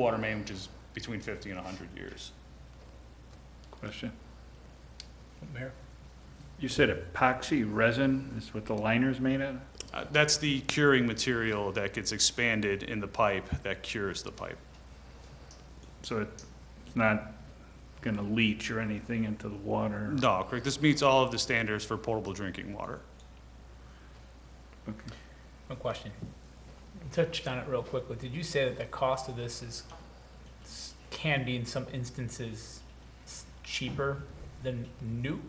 water main, which is between 50 and 100 years. Question. Mayor? You said epoxy resin is what the liner's made out of? Uh, That's the curing material that gets expanded in the pipe that cures the pipe. So it's not gonna leach or anything into the water? No, correct, this meets all of the standards for portable drinking water. Okay. One question. You touched on it real quickly. Did you say that the cost of this is, can be in some instances s- cheaper than new?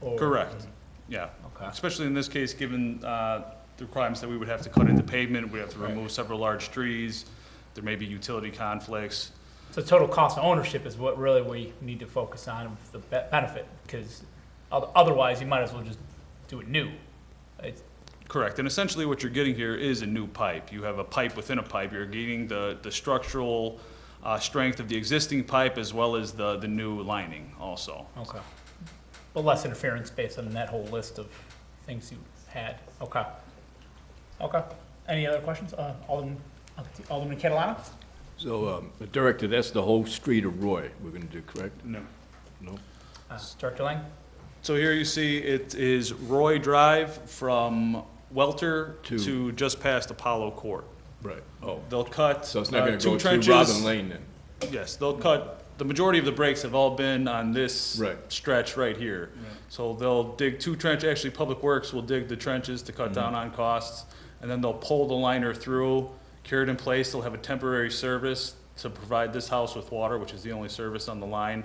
Or- Correct, yeah. Okay. Especially in this case, given uh, the requirements that we would have to cut into pavement, we'd have to remove several large trees, there may be utility conflicts. So total cost of ownership is what really we need to focus on, with the be- benefit, because otherwise you might as well just do it new. It's- Correct, and essentially what you're getting here is a new pipe. You have a pipe within a pipe. You're getting the, the structural uh, strength of the existing pipe as well as the, the new lining also. Okay. But less interference based on that whole list of things you had. Okay. Okay. Any other questions? Uh, Alderman, Alderman Catalano? So, um, Director, that's the whole street of Roy we're going to do, correct? No. No? Uh, Director Lang? So here you see it is Roy Drive from Welter To- to just past Apollo Court. Right. Oh, They'll cut so it's not uh, going to two go trenches. through Robin Lane then? Yes, they'll cut, the majority of the breaks have all been on this Right. stretch right here. So they'll dig two trench, actually, Public Works will dig the trenches to cut down on costs, and then they'll pull the liner through, cure it in place, they'll have a temporary service to provide this house with water, which is the only service on the line,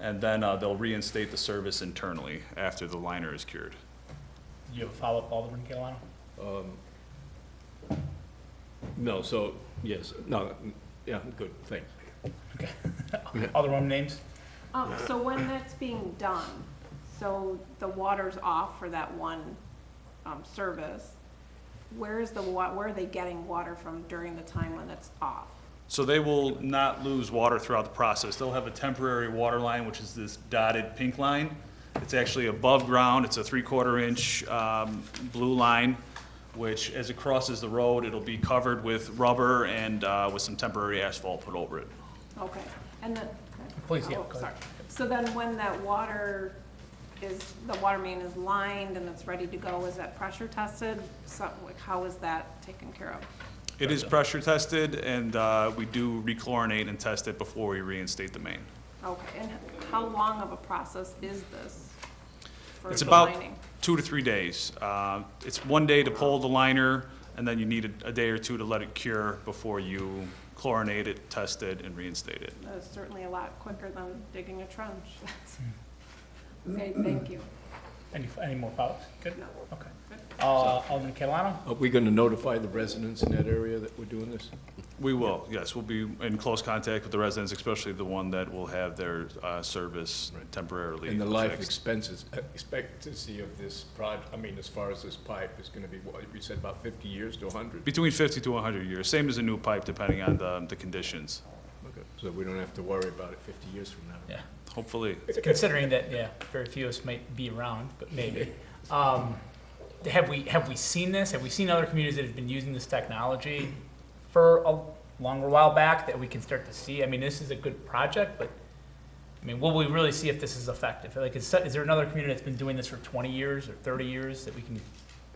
and then uh, they'll reinstate the service internally after the liner is cured. You have a follow-up, Alderman Catalano? No, so, yes, no, yeah, good, thanks. Alderman names? Um, so when that's being done, so the water's off for that one, um, service, where is the wa, where are they getting water from during the time when it's off? So they will not lose water throughout the process. They'll have a temporary water line, which is this dotted pink line. It's actually above ground. It's a three-quarter inch um, blue line, which as it crosses the road, it'll be covered with rubber and uh, with some temporary asphalt put over it. Okay, and then. Please, yeah, oh, go sorry. ahead. So then when that water is, the water main is lined and it's ready to go, is that pressure tested? So, like, how is that taken care of? It is pressure tested, and uh, we do rechlorinate and test it before we reinstate the main. Okay, and how long of a process is this? for It's the about lining? two to three days. Uh, It's one day to pull the liner, and then you need a- a day or two to let it cure before you chlorinate it, test it, and reinstate it. That is uh, certainly a lot quicker than digging a trench. Okay, thank you. Any, any more follow-ups? Good? No. Okay. Uh, Alderman Catalano? Are we going to notify the residents in that area that we're doing this? We will, yes, we'll be in close contact with the residents, especially the one that will have their uh, service Right. temporarily And the life fixed. expenses, uh, expectancy of this project, I mean, as far as this pipe is going to be, what, you said about 50 years to 100? Between 50 to 100 years, same as a new pipe, depending on the the conditions, Okay, So we don't have to worry about it 50 years from now? Yeah. hopefully. Considering that, yeah, very few of us might be around, but maybe. Um, have we, have we seen this? Have we seen other communities that have been using this technology for a longer while back that we can start to see? I mean, this is a good project, but, I mean, will we really see if this is effective? Like, is, is there another community that's been doing this for twenty years or thirty years that we can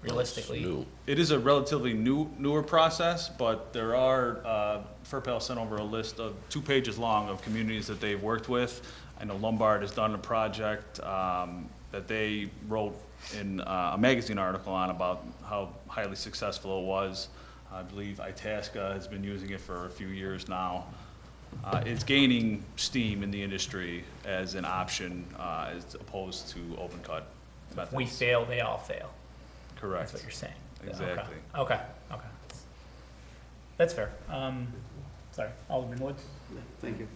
realistically? It is a relatively new, newer process, but there are, uh, FERPAL sent over a list of, two pages long of communities that they've worked with. I know Lombard has done a project um, that they wrote in uh, a magazine article on about how highly successful it was. I believe Itasca has been using it for a few years now. Uh, It's gaining steam in the industry as an option uh, as opposed to open cut methods. We fail, they all fail. That's Correct. what you're saying. Okay, Exactly. Okay, okay. That's fair. Um, sorry, Alderman Woods? Yeah, Thank you.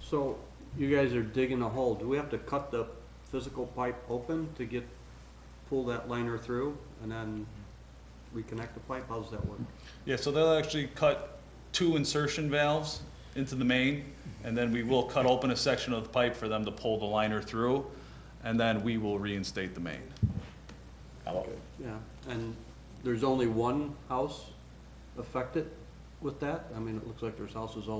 So you guys are digging a hole. Do we have to cut the physical pipe open to get, pull that liner through and then reconnect the pipe? How does that work? Yeah, so they'll actually cut two insertion valves into the main, and then we will cut open a section of the pipe for them to pull the liner through, and then we will reinstate the main. How about- Yeah, and there's only one house affected? with that? I mean, it looks like there's houses all